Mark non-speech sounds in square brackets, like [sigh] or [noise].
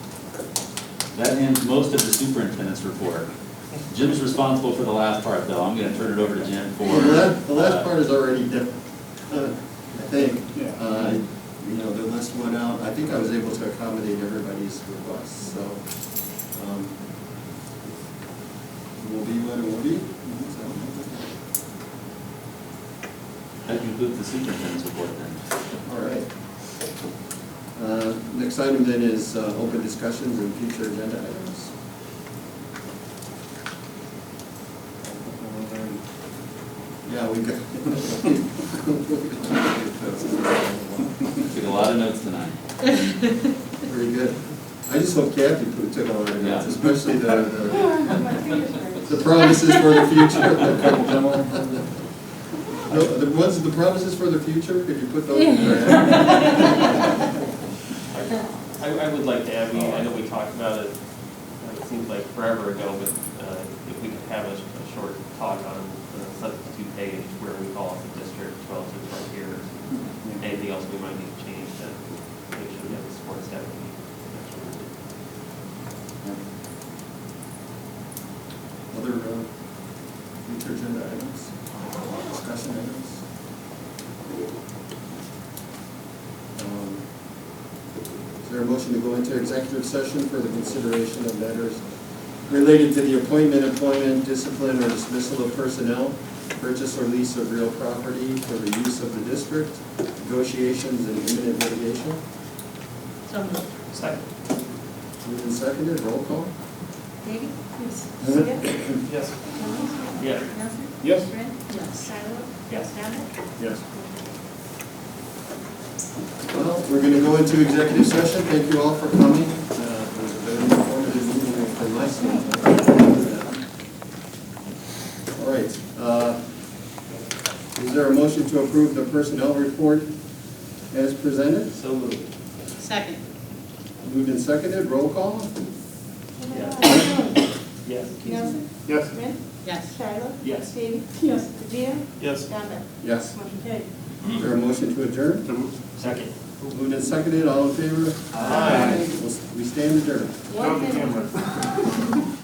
That ends most of the superintendent's report. Jim's responsible for the last part, though. I'm gonna turn it over to Jim for. Well, The last, the uh, last part is already different, uh, I think. Yeah. Uh, You know, the list went out, I think I was able to accommodate everybody's requests, so. um, Will be what it will be. Mm-hmm. So, That concludes the superintendent's report then. All right. Uh, Next item then is uh, open discussions and future agenda items. Yeah, we got. Took a lot of notes tonight. [laughs] Very good. I just hope Kathy put- took all our notes, Yeah. especially the, the- My fingers hurt. the promises for the [laughs] future. No, the ones, the promises for the future, could you put those in there? I, I would like to add, we, I know we talked about it, uh, it seems like forever ago, but, uh, if we could have a, a short talk on the substitute page where we call off the district relative to our peers, Mm-hmm. anything else we might need to change to make sure we have the support staff we need. Other, uh, future agenda items, discussion items? Um, Is there a motion to go into executive session for the consideration of matters related to the appointment, employment, discipline, or dismissal of personnel, purchase or lease of real property for the use of the district, negotiations and imminent litigation? So moved. Second. Moved and seconded, roll call? Davey? Yes. Yes. Jones? Yes. Nelson? Yes. Brent? Yes. Shiloh? Yes. Dominic? Yes. Well, we're going to go into executive session. Thank you all for coming. Uh, It was a very informative meeting for my standpoint. All right. uh, Is there a motion to approve the personnel report as presented? So moved. Second. Moved and seconded, roll call? Yes. Nelson? Yes. Brent? Yes. Shiloh? Yes. Davey? Yes. Jim? Yes. Donovan? Yes. Motion carried. Is there a motion to adjourn? Second. Moved and seconded, all in favor? Aye. We'll- We stand adjourned. Not the minute. camera.